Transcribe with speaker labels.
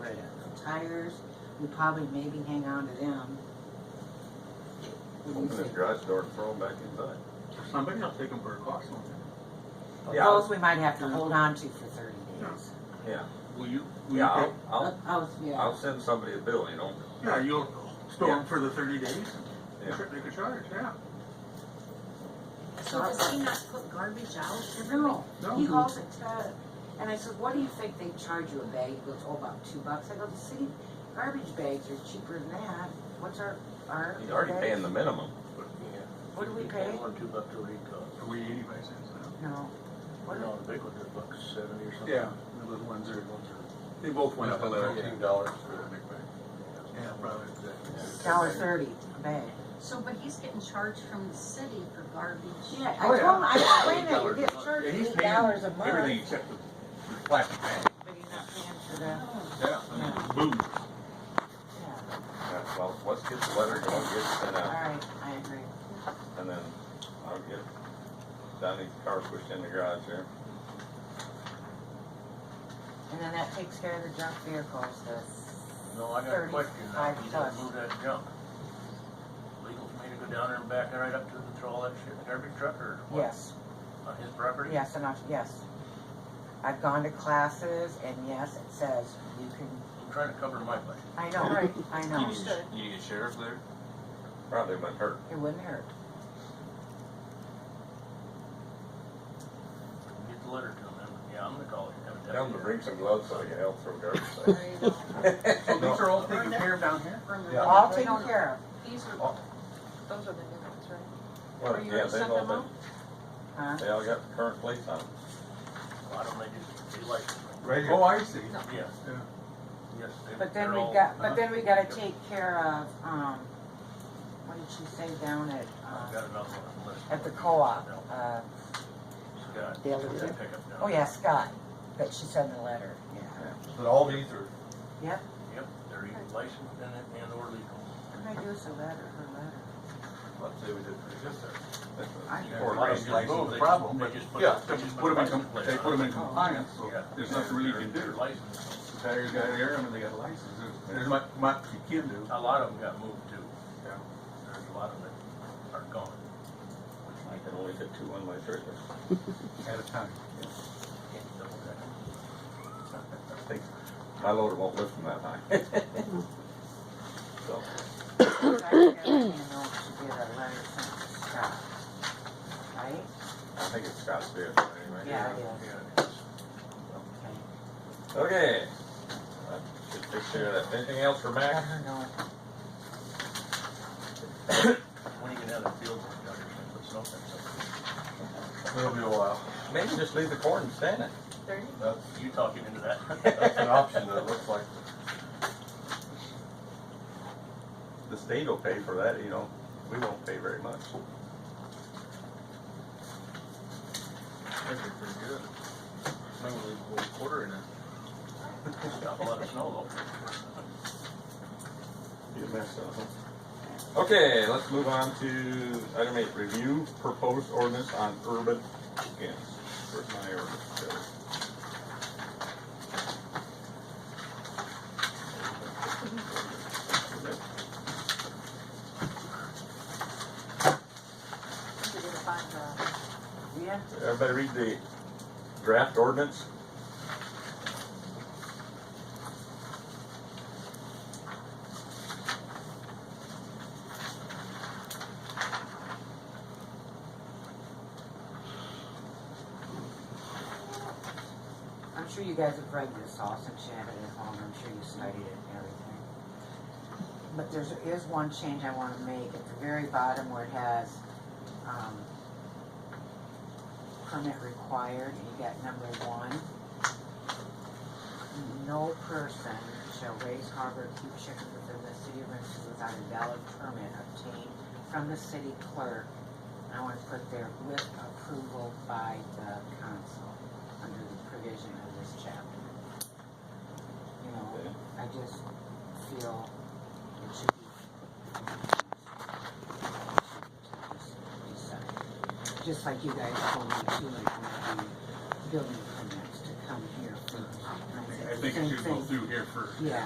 Speaker 1: tires, we probably maybe hang on to them. What do you
Speaker 2: Open this
Speaker 1: think?
Speaker 2: garage door and throw them back inside.
Speaker 3: Somebody will take them for a cost on
Speaker 1: But
Speaker 2: Yeah.
Speaker 1: Those we might have to hold on to for thirty days.
Speaker 3: it. Will you, will you,
Speaker 2: Yeah, I'll,
Speaker 3: take-
Speaker 2: I'll,
Speaker 1: Oh, yeah,
Speaker 2: I'll send somebody a bill, you know?
Speaker 3: yeah, you'll store them for the thirty days?
Speaker 2: Yeah.
Speaker 3: Sure, They could charge, yeah.
Speaker 4: So does he not put garbage out every week?
Speaker 1: no,
Speaker 3: No.
Speaker 1: he hauls it to, and I said, what do you think they charge you a bag? He goes, oh, about two bucks. I go, the city garbage bags are cheaper than that. What's our, our?
Speaker 2: He's already
Speaker 1: bags?
Speaker 2: paying the minimum.
Speaker 1: What do we pay?
Speaker 5: One, two bucks a week, uh,
Speaker 3: Are we eighty-five cents now?
Speaker 1: No. What do
Speaker 5: you know, the big ones are buck seventy or something.
Speaker 3: Yeah, the little ones are, they both went up a little. Yeah,
Speaker 5: dollars.
Speaker 3: probably.
Speaker 1: we, dollar thirty a bag.
Speaker 4: So, but he's getting charged from the city for garbage.
Speaker 1: Yeah, I
Speaker 3: Oh,
Speaker 1: told
Speaker 3: yeah.
Speaker 1: him, I explained that you
Speaker 5: $8 a
Speaker 1: get
Speaker 5: month.
Speaker 1: charged
Speaker 3: Yeah, he's
Speaker 1: eight dollars a
Speaker 3: paying
Speaker 1: month.
Speaker 3: everything except the the plastic bag.
Speaker 1: But you're not paying for that.
Speaker 4: Oh,
Speaker 3: Yeah.
Speaker 1: Yeah.
Speaker 3: Boom.
Speaker 1: Yeah,
Speaker 2: Yeah, well, let's get the letter going, get it sent
Speaker 1: all
Speaker 2: out,
Speaker 1: right, I agree.
Speaker 2: and then I'll get Donnie's car pushed in the garage here.
Speaker 1: And then that takes care of the junk vehicles, the,
Speaker 5: No, I got a question, now.
Speaker 1: Thirty-five
Speaker 5: you gotta
Speaker 1: plus.
Speaker 5: move that junk. Legal for me to go down there and back it right up to it and throw all that shit in every truck or what,
Speaker 1: yes,
Speaker 5: on his property?
Speaker 1: yes, and I, yes. I've gone to classes and yes, it says you can,
Speaker 5: I'm trying to cover my butt.
Speaker 1: I know, I know,
Speaker 3: You need a sheriff there?
Speaker 2: Probably wouldn't hurt.
Speaker 1: it wouldn't hurt.
Speaker 5: Get the letter to him, and, yeah, I'm gonna call him.
Speaker 2: Tell him to bring some gloves so he can help throw garbage.
Speaker 4: There
Speaker 2: out.
Speaker 4: you go.
Speaker 3: So these
Speaker 2: No.
Speaker 3: are all taken care of down here?
Speaker 4: From the-
Speaker 2: Yeah.
Speaker 1: All taken care
Speaker 4: These are, those are the new ones, right?
Speaker 2: Well,
Speaker 4: Are you
Speaker 2: yeah,
Speaker 4: gonna
Speaker 2: they've
Speaker 4: send
Speaker 2: all
Speaker 4: them
Speaker 2: been,
Speaker 4: out?
Speaker 1: of, huh?
Speaker 2: they all got current plates on them.
Speaker 5: Why don't they just be like,
Speaker 2: Right
Speaker 3: Oh, I see.
Speaker 5: yeah,
Speaker 3: Yeah.
Speaker 5: yes, they-
Speaker 1: But
Speaker 5: they're
Speaker 1: then we
Speaker 5: all-
Speaker 1: got, but then we gotta take care of, um, what did she say down at, uh,
Speaker 5: I've got another one on the list.
Speaker 1: at the co-op? Uh,
Speaker 5: Scott,
Speaker 1: the other
Speaker 5: that
Speaker 1: day?
Speaker 5: pickup down
Speaker 1: Oh, yeah, Scott, that she sent in the letter, yeah.
Speaker 2: But all these are.
Speaker 5: there. Yep, they're either licensed and, and or legal.
Speaker 1: What did I do with the letter, her letter?
Speaker 2: Let's say we did pretty good there.
Speaker 1: I-
Speaker 2: Four
Speaker 3: Or
Speaker 2: grand.
Speaker 3: license, no problem, but- Yeah, they just put them in, com- they put them in compliance, so there's nothing really you can do.
Speaker 5: License.
Speaker 3: Tires got air, I mean, they got a license, There's- there's not much you can do.
Speaker 5: A lot of them got moved too. There's a lot of them that are gone.
Speaker 2: I can only fit two on my trailer.
Speaker 3: At a time.
Speaker 5: Can't double that.
Speaker 2: I think My loader won't lift from that high. So,
Speaker 1: I think I don't even know if she did a letter sent to Scott. Right?
Speaker 2: I think it's Scott's vehicle anyway.
Speaker 1: Yeah, it is.
Speaker 5: Yeah.
Speaker 1: Okay.
Speaker 2: Okay. That Should take care of that. Anything else for
Speaker 1: I
Speaker 2: Max?
Speaker 1: don't know.
Speaker 5: When you can have a field work done, you can put something, so
Speaker 6: It'll be a while.
Speaker 2: Maybe just leave the corn standing.
Speaker 6: That's,
Speaker 5: you talking into that.
Speaker 6: that's an option that looks like
Speaker 2: The state will pay for that, you know, we won't pay very much.
Speaker 3: That'd be pretty good. Someone leave a whole quarter in it.
Speaker 5: Got a lot of snow
Speaker 2: You mess up. Okay, let's move on to item eight, review proposed ordinance on urban chickens. Where's my ordinance code?
Speaker 4: You're gonna find the- uh,
Speaker 1: Yeah,
Speaker 2: Everybody read the draft ordinance?
Speaker 1: I'm sure you guys have read this all since you had it at home, I'm sure you studied it and everything. But there's, is one change I wanna make at the very bottom where it has, um, permit required, and you got number one. No person shall raise, harbor, or keep chickens within the city of Rensselaer without a valid permit obtained from the city clerk. And I wanna put there with approval by the council under the provision of this chapter. You know, I just feel it should be. decided. Just like you guys told me too, like when the building permits to come here first. And
Speaker 3: I
Speaker 1: said
Speaker 3: think- I
Speaker 1: the
Speaker 3: think
Speaker 1: same
Speaker 3: it should go
Speaker 1: thing.
Speaker 3: through here first.
Speaker 1: Yeah,